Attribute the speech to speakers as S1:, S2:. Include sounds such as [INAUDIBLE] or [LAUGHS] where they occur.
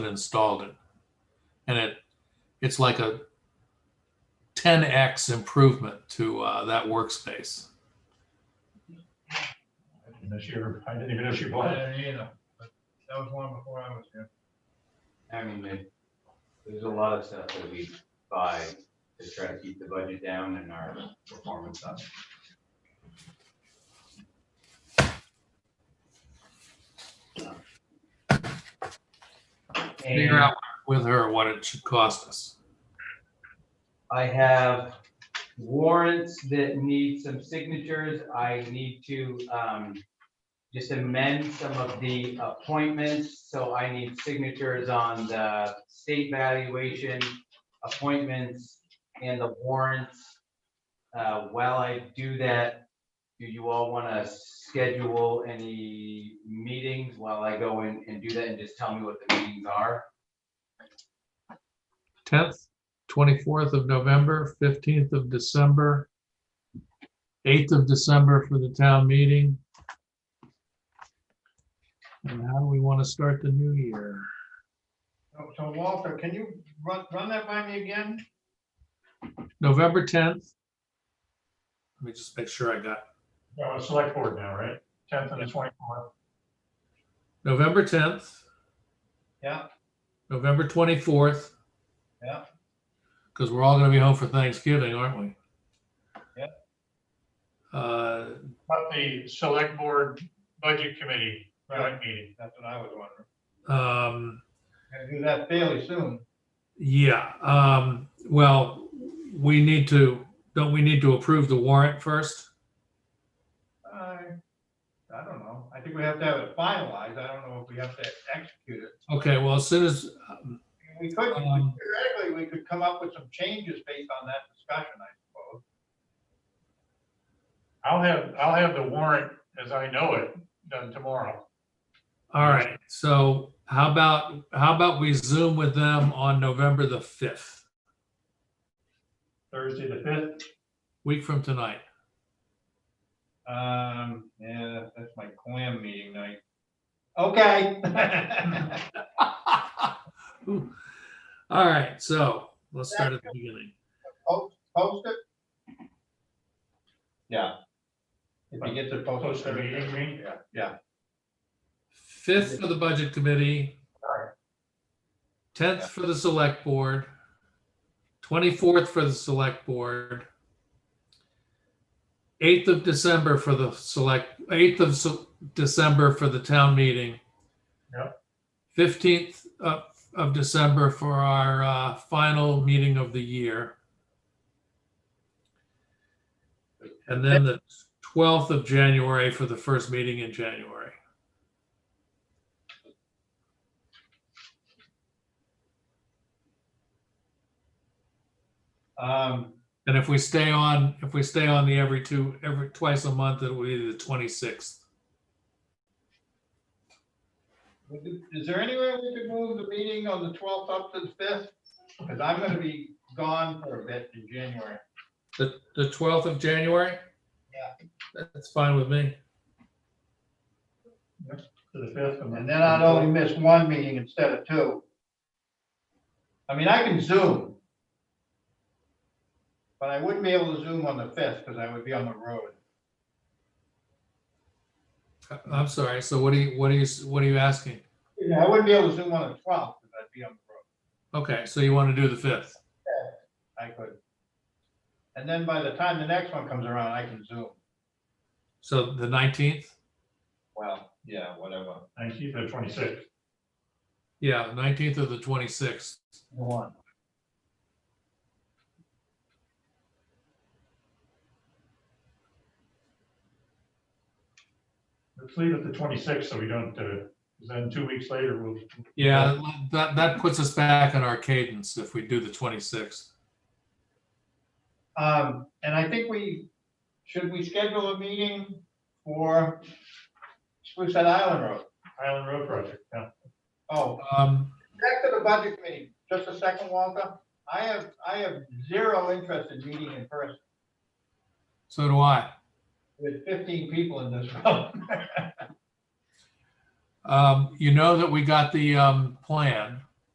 S1: installed it. And it, it's like a 10x improvement to uh, that workspace.
S2: I didn't know she, ever- I didn't even know she
S3: I
S2: bought it.
S3: didn't either, but that was long before I was here.
S4: I mean, it- there's a lot of stuff that we buy to try to keep the budget down and our performance up.
S1: Figure
S4: And
S1: out with her what it should cost us.
S4: I have warrants that need some signatures. I need to, um, just amend some of the appointments, so I need signatures on the state valuation, appointments, and the warrants. Uh, While I do that, do you all want to schedule any meetings while I go in and do that and just tell me what the meetings are?
S1: 10th, 24th of November, 15th of December, 8th of December for the town meeting. And how do we want to start the new year?
S3: So- So Walter, can you run, run that by me again?
S1: November 10th. Let me just make sure I got
S2: No, it's select board now, right? Tenth and the twenty-fourth.
S1: November 10th,
S3: Yeah,
S1: November 24th,
S3: yeah,
S1: because we're all going to be home for Thanksgiving, aren't we?
S3: Yeah.
S1: Uh,
S2: But the select board budget committee,
S3: Right.
S2: joint meeting.
S3: that's what I was wondering.
S1: um,
S3: Gonna do that fairly soon.
S1: Yeah, um, well, we need to, don't we need to approve the warrant first?
S3: I, Uh, I don't know. I think we have to have it finalized. I don't know if we have to execute it.
S1: Okay, well, as soon as, um,
S3: We could,
S1: Um,
S3: theoretically, we could come up with some changes based on that discussion, I suppose.
S2: I'll have, I'll have the warrant as I know it done tomorrow.
S1: all right, so how about, how about we Zoom with them on November the fifth,
S2: Thursday the fifth,
S1: week from tonight?
S3: Um, yeah, that's my clam meeting night. Okay. [LAUGHS]
S1: [LAUGHS] Ooh. All right, so let's start at the beginning.
S3: Post it? Yeah. If you get to
S2: post
S3: post
S2: the meeting,
S3: it.
S2: you mean?
S3: Yeah, yeah.
S1: Fifth for the budget committee. Tenth for the select board. Twenty-fourth for the select board. Eighth of December for the select, eighth of Se- December for the town meeting.
S2: Yep.
S1: Fifteenth of, of December for our, uh, final meeting of the year. And then the twelfth of January for the first meeting in January.
S3: Um,
S1: And if we stay on, if we stay on the every two, every, twice a month, it'll be the twenty-sixth.
S3: would you- is there any way we could move the meeting on the twelfth up to the fifth? Because I'm gonna be gone for a bit in January.
S1: The, the twelfth of January?
S3: Yeah.
S1: That's fine with me.
S2: to the fifth.
S3: And then I'd only miss one meeting instead of two. I mean, I can Zoom. But I wouldn't be able to Zoom on the fifth because I would be on the road.
S1: I- Uh, I'm sorry, so what are you, what are you, what are you asking?
S3: I wouldn't be able to Zoom on the twelfth because I'd be on the road.
S1: Okay, so you want to do the fifth?
S3: I could. And then by the time the next one comes around, I can zoom.
S1: So the nineteenth?
S3: Well, yeah, whatever.
S2: Nineteenth or twenty-sixth.
S1: Yeah, nineteenth or the twenty-sixth.
S3: The one.
S2: Let's leave it the twenty-sixth so we don't, uh, 'cause then two weeks later, we'll,
S1: Yeah, that, that puts us back in our cadence if we do the twenty-sixth.
S3: Um, and I think we, should we schedule a meeting for Sprucehead Island Road?
S2: Island Road Project, yeah.
S3: Oh,
S1: Um,
S3: back to the budget committee, just a second, Walter. I have, I have zero interest in meeting in person
S1: so do I.
S3: with fifteen people in this room.
S1: Um, you know that we got the, um, plan.